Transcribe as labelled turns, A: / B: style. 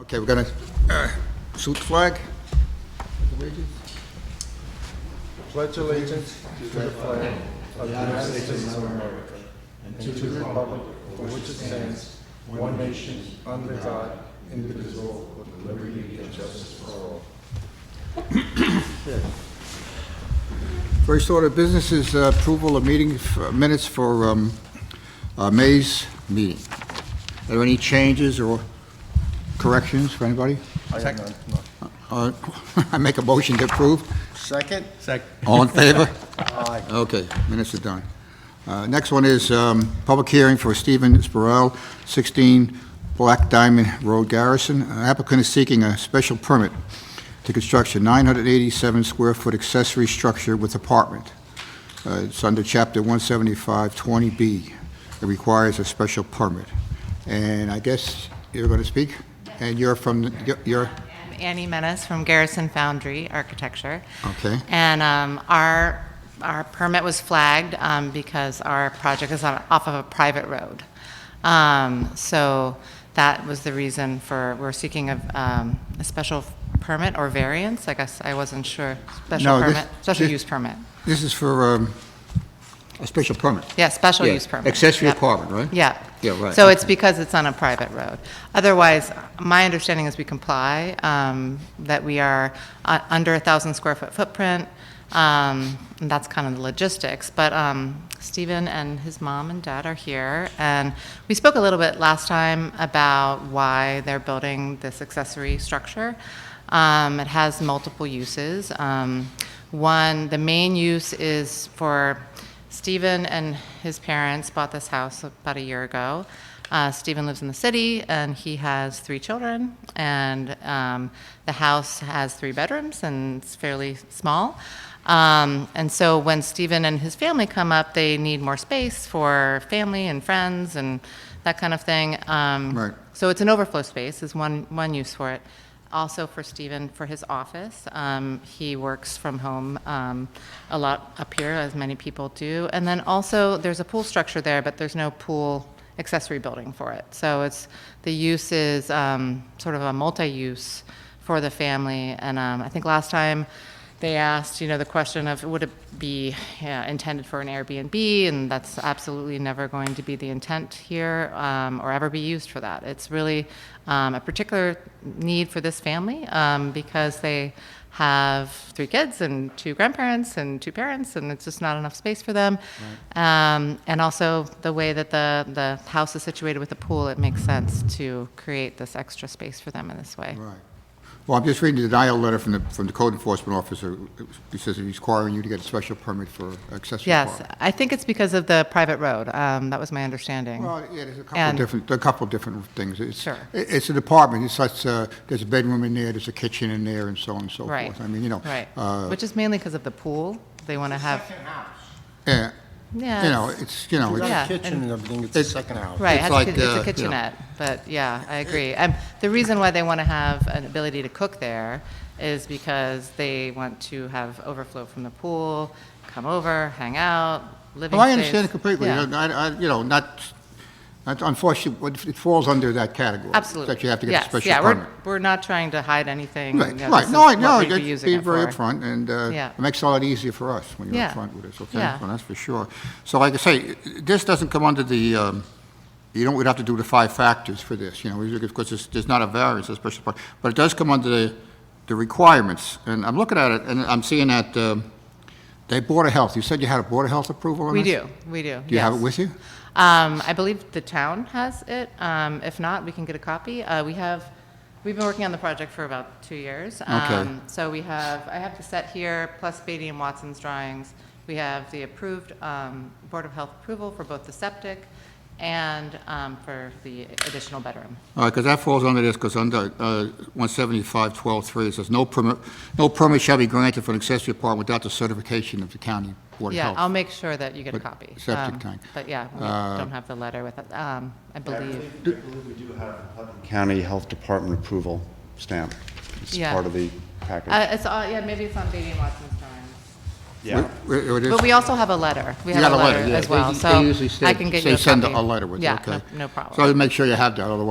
A: Okay, we're gonna uh, shoot the flag?
B: Pledge allegiance to the flag of the United States of America and to the republic for which it stands, one nation, under God, indivisible, with liberty and justice for all.
A: First order of business is uh, approval of meeting f- minutes for um, uh, May's meeting. Are there any changes or corrections for anybody?
B: I have none.
A: Uh, I make a motion to approve.
B: Second? Second.
A: All in favor?
B: Aye.
A: Okay, minutes are done. Uh, Next one is um, public hearing for Stephen Sporel, 16 Black Diamond Road Garrison. Uh, Applicant is seeking a special permit to construct a 987-square-foot accessory structure with apartment. Uh, It's under Chapter 175-20B. It requires a special permit. And I guess you're going to speak? And you're from, the- you're- you're,
C: I'm Annie Menace from Garrison Foundry Architecture.
A: Okay.
C: And um, our, our permit was flagged um, because our project is on, off of a private road. Um, So that was the reason for, we're seeking a, um, a special permit or variance, I guess, I wasn't sure. Special
A: No, this-
C: permit, special
A: this-
C: use permit.
A: this is for um, a special permit.
C: Yeah, special
A: Yeah,
C: use permit.
A: accessory
C: Yep.
A: apartment, right?
C: Yeah.
A: Yeah, right,
C: So it's
A: okay.
C: because it's on a private road. Otherwise, my understanding is we comply, um, that we are uh, under a thousand square foot footprint, um, and that's kind of the logistics. But um, Stephen and his mom and dad are here, and we spoke a little bit last time about why they're building this accessory structure. Um, It has multiple uses. Um, One, the main use is for Stephen and his parents bought this house about a year ago. Uh, Stephen lives in the city and he has three children, and um, the house has three bedrooms and it's fairly small. Um, and so when Stephen and his family come up, they need more space for family and friends and that kind of thing. Um,
A: Right.
C: So it's an overflow space, is one, one use for it. Also for Stephen, for his office. Um, he works from home um, a lot up here, as many people do. And then also, there's a pool structure there, but there's no pool accessory building for it. So it's, the use is um, sort of a multi-use for the family. And um, I think last time, they asked, you know, the question of would it be yeah, intended for an Airbnb, and that's absolutely never going to be the intent here um, or ever be used for that. It's really um, a particular need for this family um, because they have three kids and two grandparents and two parents, and it's just not enough space for them. Um, and also the way that the, the house is situated with the pool, it makes sense to create this extra space for them in this way.
A: Right. Well, I'm just reading the denial letter from the, from the code enforcement officer. He says he's requiring you to get a special permit for accessory
C: Yes,
A: apartment.
C: I think it's because of the private road. Um, that was my understanding.
A: Well, yeah, there's a couple of
C: And-
A: different, there are a couple of different things. It's-
C: Sure.
A: i- It's an apartment, it's such, uh, there's a bedroom in there, there's a kitchen in there, and so on and so forth.
C: Right.
A: I mean, you know.
C: Right.
A: uh,
C: Which is mainly because of the pool. They want to have,
A: Yeah,
C: yeah.
A: eh, you know,
C: it's-
A: it's, you know,
B: Got
A: it's-
C: Yeah,
B: a kitchen
C: and-
B: and everything, it's the
A: It's-
B: second house.
C: Right,
A: it's
C: it has
A: like,
C: to- it's
A: uh, you
C: a
A: know.
C: kitchenette, but yeah, I agree. Um, The reason why they want to have an ability to cook there is because they want to have overflow from the pool, come over, hang out, living
A: well, Oh, I understand it
C: space.
A: completely.
C: Yeah.
A: You know, I, I, you know, not, not- unfortunately, it falls under that category.
C: Absolutely.
A: That you have to get a
C: Yes,
A: special
C: yeah,
A: permit.
C: we're, we're not trying to hide anything.
A: Right,
C: you know,
A: right,
C: this
A: no, I
C: is what
A: know,
C: we'd be
A: it's
C: using
A: being
C: it
A: very
C: for.
A: upfront, and uh,
C: Yeah.
A: it makes it a lot easier for us when you're
C: Yeah.
A: upfront with us, okay?
C: Yeah.
A: Well, that's for sure. So like I say, this doesn't come under the, um, you don't, we'd have to do the five factors for this, you know, we- because there's, there's not a variance, a special part, but it does come under the, the requirements, and I'm looking at it, and I'm seeing that um, they Board of Health, you said you had a Board of Health approval on
C: We
A: this?
C: do, we do.
A: Do you have it
C: yes.
A: with you?
C: Um, I believe the town has it. Um, if not, we can get a copy. Uh, we have, we've been working on the project for about two years. Um, So we have, I have the set here, plus Beatty and Watson's drawings. We have the approved, um, Board of Health approval for both the septic and, um, for the additional bedroom.
A: All right, because Uh, that falls under this, because under uh, 175-12-3, it says, "No permit, no permit shall be granted for an accessory apartment without the certification of the county board of
C: Yeah, um,
A: health."
C: I'll make sure that you get a
A: But
C: copy.
A: septic
C: Um,
A: tank. Uh,
C: But yeah, we don't have the letter with it, um, I believe.
D: I believe we do have Putnam County Health Department approval stamp. It's
C: Yeah.
D: part of the package.
C: Uh, it's, all- yeah, maybe it's on Beatty and Watson's drawings.
D: Yeah.
A: Where- where it is?
C: But we also have a letter. We
A: You
C: have
A: got
C: a letter
A: yeah.
C: as
A: They-
C: well,
A: they
C: so
A: usually
C: I
A: state-
C: can get
A: say
C: you a
A: send a
C: copy.
A: letter with it, okay?
C: Yeah, no- no
A: So
C: problem.
A: make sure you have that, otherwise